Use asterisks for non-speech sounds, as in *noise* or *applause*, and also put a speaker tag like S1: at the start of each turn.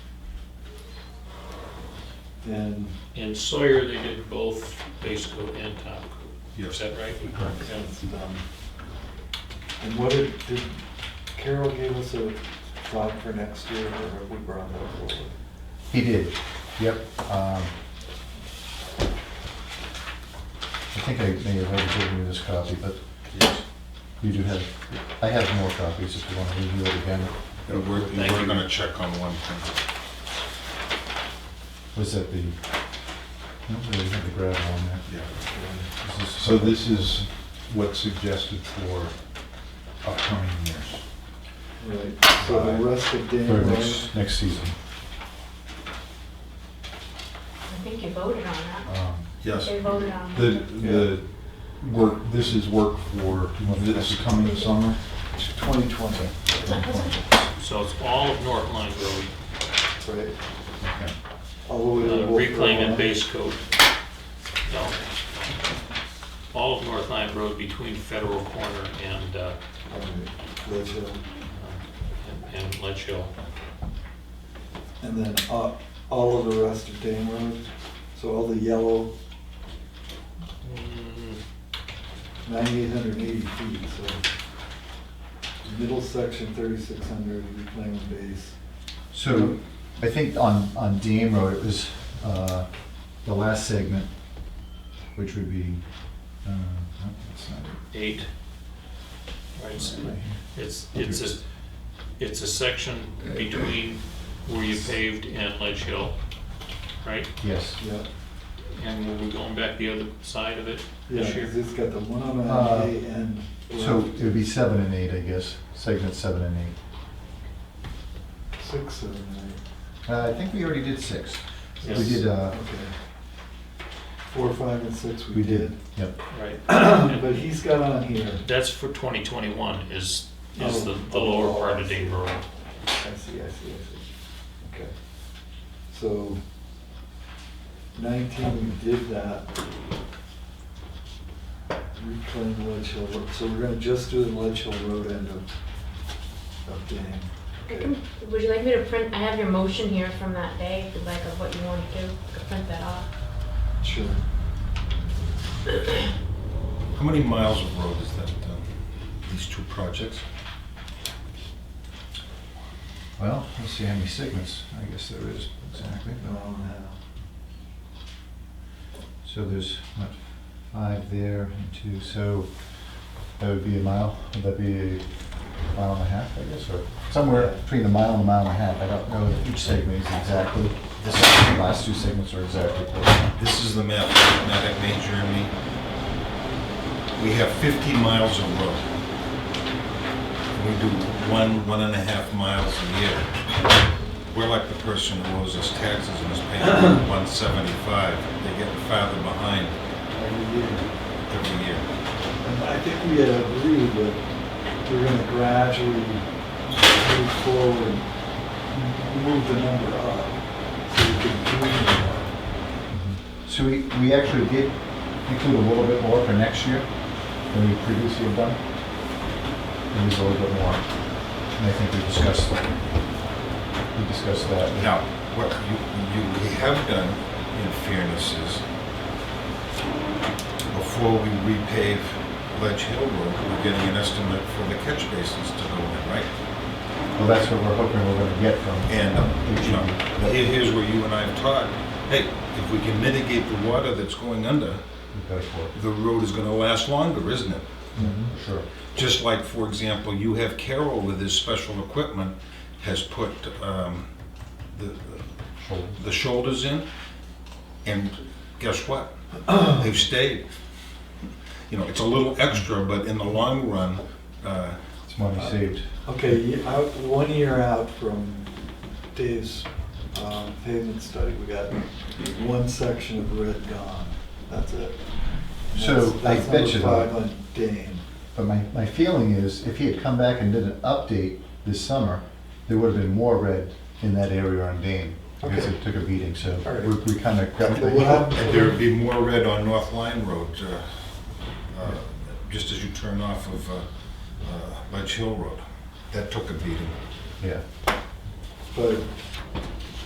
S1: and
S2: And Sawyer, they did both base coat and top coat. Is
S3: Yes,
S2: that right?
S1: And, um, and what did, did Carol gave us a thought for next year, or have we brought that forward?
S4: He did, yep. um, I think I may have already given you this copy, but you do have, I have more copies if you want to review it again.
S3: we were, we
S2: Thank
S3: were
S2: you.
S3: gonna check on one thing.
S4: Was that the, no, they had the gravel on there.
S3: Yeah.
S4: This is-
S3: So this is what's suggested for upcoming years.
S1: Right, so the rest of
S4: For
S1: January,
S4: next, next season.
S5: I think you voted on that.
S4: Um,
S3: Yes.
S5: They voted on
S3: The,
S5: it.
S3: the work, this is work for this coming summer?
S1: twenty twenty,
S2: So it's all of North Line Road,
S1: right?
S3: Okay.
S1: All the way
S2: uh,
S1: to Wolf
S2: reclaim and
S1: Lawn.
S2: base coat. No. All of North Line Road between Federal Corner and, uh,
S1: All right, Ledge Hill.
S2: and- and Ledge Hill.
S1: And then uh, all of the rest of Dame Road, so all the yellow,
S2: Mm,
S1: 9,880 feet, so middle section 3,600 reclaimed base.
S4: So I think on, on Dame Road, it was uh, the last segment, which would be, uh, no, that's not it.
S2: Eight. Right, it's-
S4: Right here.
S2: it's, it's a, it's a section between where you paved and Ledge Hill, right?
S4: Yes.
S1: Yeah,
S2: And were we going back the other side of it
S1: yeah,
S2: this year?
S1: 'cause it's got the 109
S4: Uh,
S1: A and.
S4: So it would be seven and eight, I guess, segment seven and eight.
S1: Six, seven, eight,
S4: Uh, I think we already did six. We
S2: Yes.
S4: did, uh,
S1: okay. Four, five, and six we
S4: we did,
S1: did. *coughs*
S4: yep.
S2: Right.
S1: But he's got on here,
S2: That's for 2021 is, is the,
S1: Oh.
S2: the lower part of Dayton Road.
S1: I see, I see, I see. Okay. So 19, we did that. Reclaim Ledge Hill Road, so we're gonna just do the Ledge Hill Road end of, of Dame.
S5: I can- Would you like me to print, I have your motion here from that day, if you'd like, of what you want to do, I could print that off.
S1: Sure.
S3: How many miles of road is that, uh, these two projects?
S4: Well, let's see how many segments, I guess there is exactly.
S1: No, no.
S4: So there's, what, five there and two, so that would be a mile, would that be a mile and a half, I guess, or somewhere between a mile and a mile and a half. I don't know if each segment is exactly, this, last two segments are exactly. close.
S3: This is the mathematic major in me. We have 50 miles of road. We do one, one and a half miles a year. We're like the person who owes us taxes and is paying 175. They're getting farther behind
S1: Every year.
S3: every year.
S1: And I think we had agreed that we're gonna gradually move forward, m- move the number up, so we can do more.
S4: So we, we actually did include a little bit more for next year than we previously have done. It was a little bit more, and I think we discussed, we discussed that.
S3: Now, what you, you we have done, in fairness, is before we repave Ledge Hill Road, we're getting an estimate for the catch basins to go in, right?
S4: Well, that's what we're hoping we're gonna get from. E
S3: And, um, you know, here- here's where you and I have talked, hey, if we can mitigate the water that's going under,
S4: We've got it for-
S3: the road is gonna last longer, isn't it?
S4: Sure.
S3: Just like, for example, you have Carroll with his special equipment has put, um, the,
S4: Sure.
S3: the shoulders in, and guess what? They've stayed. You know, it's a little extra, but in the long run, uh,
S4: It's money saved.
S1: *clears throat* Okay, y- out, one year out from Dave's um, pavement study, we got one section of red gone, that's it. And
S4: So,
S1: that's-
S4: I
S1: that's
S4: bet
S1: number
S4: you
S1: Five
S4: though-
S1: on Dane,
S4: But my, my feeling is if he had come back and did an update this summer, there would have been more red in that area on Dane. Because
S1: Okay.
S4: it took a beating, so
S1: All right.
S4: we, we kind of grabbed
S1: So we'll have-
S4: *laughs* the.
S3: and there'd be more red on North Line Road, uh, uh, just as you turn off of uh, uh, Ledge Hill Road. That took a beating.
S4: Yeah.
S1: but